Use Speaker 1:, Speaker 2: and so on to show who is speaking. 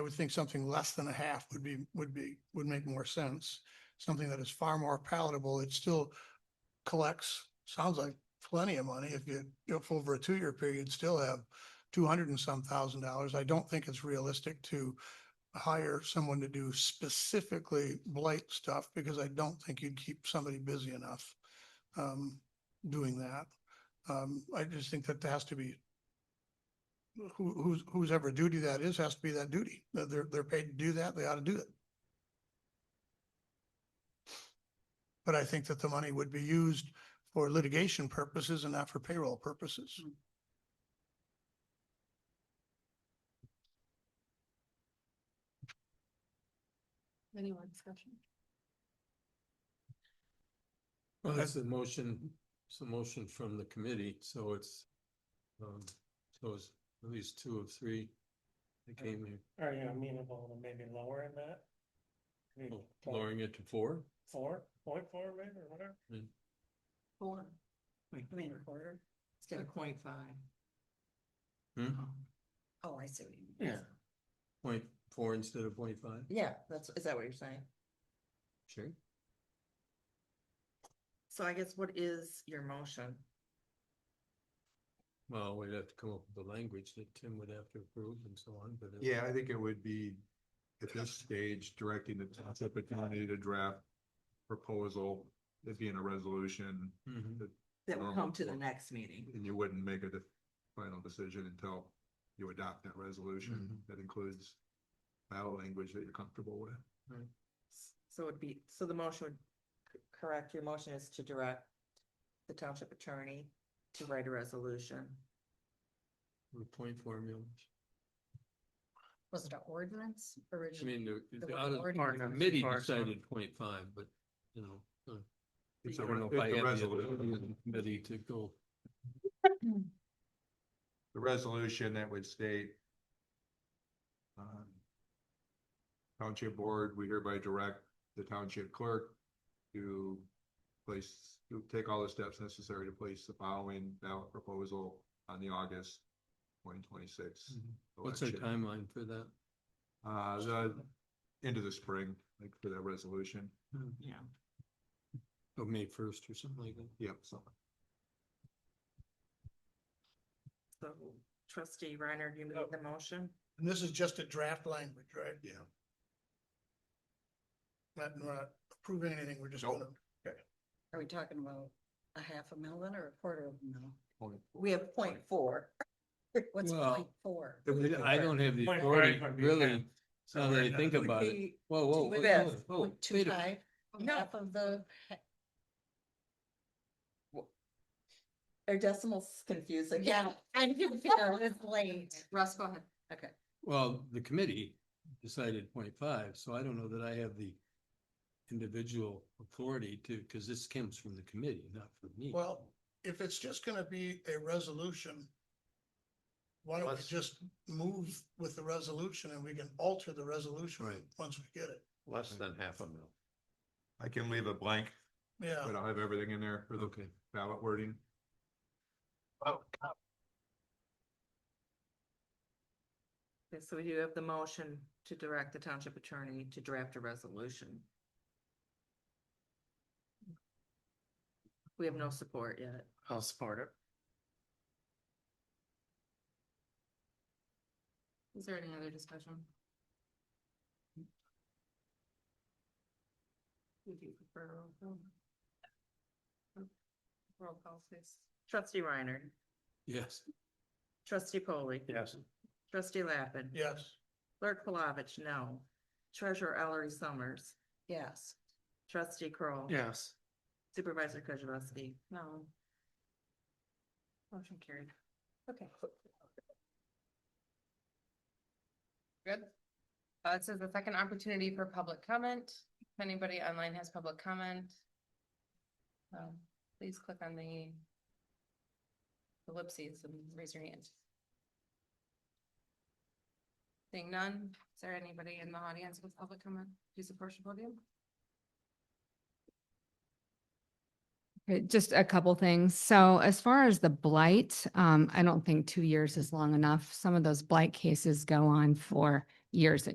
Speaker 1: would think something less than a half would be, would be, would make more sense. Something that is far more palatable. It still collects, sounds like plenty of money. If you, if over a two-year period, still have two hundred and some thousand dollars. I don't think it's realistic to hire someone to do specifically blight stuff because I don't think you'd keep somebody busy enough um, doing that. Um, I just think that there has to be who, who's, whose ever duty that is, has to be that duty. That They're, they're paid to do that. They ought to do it. But I think that the money would be used for litigation purposes and not for payroll purposes.
Speaker 2: Any more discussion?
Speaker 3: Well, that's a motion, it's a motion from the committee, so it's, um, so it's at least two of three that came here,
Speaker 4: Are you amenable to maybe lowering that? Maybe
Speaker 3: Oh, lowering it to four.
Speaker 4: Four, point four maybe, or whatever?
Speaker 2: Four. I mean, a quarter. Instead of point five.
Speaker 3: Hmm?
Speaker 2: Oh, I see what you mean.
Speaker 4: Yeah.
Speaker 3: Point four instead of point five,
Speaker 5: Yeah, that's, is that what you're saying?
Speaker 3: sure.
Speaker 5: So I guess what is your motion?
Speaker 3: Well, we'd have to come up with the language that Tim would have to approve and so on, but.
Speaker 6: Yeah, I think it would be at this stage directing the township attorney to draft proposal, it'd be in a resolution,
Speaker 3: Mhm.
Speaker 5: That will
Speaker 6: Um,
Speaker 5: come to the
Speaker 6: well-
Speaker 5: next meeting.
Speaker 6: and you wouldn't make a de- final decision until you adopt that resolution
Speaker 3: Mm-hmm.
Speaker 6: that includes ballot language that you're comfortable with.
Speaker 5: So it'd be, so the motion would, c- correct, your motion is to direct the township attorney to write a resolution.
Speaker 3: With Point four millions.
Speaker 2: Was it an ordinance
Speaker 3: I
Speaker 2: originally?
Speaker 3: mean, the, the
Speaker 2: The
Speaker 3: out of- the
Speaker 4: ordinance
Speaker 3: committee
Speaker 4: requires one.
Speaker 3: decided point five, but, you know. uh,
Speaker 6: It's
Speaker 3: I
Speaker 6: a
Speaker 3: don't
Speaker 6: re-
Speaker 3: know if
Speaker 6: it's
Speaker 3: I
Speaker 6: a
Speaker 3: have the
Speaker 6: resolution.
Speaker 3: authority of the Committee to go.
Speaker 6: The resolution that would state um, Township Board, we hereby direct the township clerk to place, to take all the steps necessary to place the following ballot proposal on the August twenty twenty-six.
Speaker 3: Mm-hmm. What's our timeline for that?
Speaker 6: Uh, the, end of the spring, like for that resolution.
Speaker 5: Yeah.
Speaker 3: Or Oh, May first or something like that?
Speaker 6: Yep, so.
Speaker 5: So trustee Reiner, you made the motion?
Speaker 1: And this is just a draft language, right?
Speaker 6: Yeah.
Speaker 1: Not, we're not approving anything. We're just
Speaker 6: Nope.
Speaker 1: gonna
Speaker 2: Are we talking about a half a million or a quarter of a million?
Speaker 5: We have point four.
Speaker 2: What's
Speaker 3: Well-
Speaker 2: point four?
Speaker 3: I don't have the
Speaker 4: Point
Speaker 3: authority,
Speaker 4: five would be
Speaker 3: really,
Speaker 4: half. So
Speaker 3: now that
Speaker 4: we're
Speaker 3: I
Speaker 4: not-
Speaker 3: think about it.
Speaker 5: Be
Speaker 3: Whoa, whoa,
Speaker 5: two
Speaker 3: whoa,
Speaker 5: events,
Speaker 3: whoa, whoa,
Speaker 2: Two
Speaker 3: wait a,
Speaker 2: five,
Speaker 5: No.
Speaker 2: half of the, ha-
Speaker 5: Are decimals confusing?
Speaker 2: yeah, I'm confused, it's late. Russ, go ahead. Okay.
Speaker 3: well, the committee decided point five, so I don't know that I have the individual authority to, because this comes from the committee, not from me.
Speaker 1: Well, if it's just gonna be a resolution, why don't we
Speaker 7: Let's-
Speaker 1: just move with the resolution and we can alter the resolution
Speaker 3: Right.
Speaker 1: once we get it?
Speaker 7: Less than half a mil.
Speaker 6: I can leave it blank,
Speaker 1: Yeah,
Speaker 6: but I'll have everything in there for the
Speaker 3: Okay,
Speaker 6: ballot wording.
Speaker 5: Okay, So we do have the motion to direct the township attorney to draft a resolution. We have no support yet.
Speaker 4: I'll support it.
Speaker 5: Is there any other discussion? Would you prefer roll call? Roll call, please. Trustee Reiner,
Speaker 3: yes.
Speaker 5: trustee Polly,
Speaker 4: Yes.
Speaker 5: trustee Lappin.
Speaker 1: yes.
Speaker 5: Clerk Palovich, no. Treasurer Ellery Summers,
Speaker 2: Yes.
Speaker 5: trustee Kroll.
Speaker 4: Yes.
Speaker 5: Supervisor Kozibowski. No. Motion carried.
Speaker 2: Okay. Good. Uh, it says the second opportunity for public comment. If anybody online has public comment. Um, please click on the. Ellipses and raise your hand. Seeing none, is there anybody in the audience with public comment? Please approach the podium.
Speaker 8: Okay, Uh, just a couple things. So as far as the blight, um, I don't think two years is long enough. Some of those blight cases go on for years and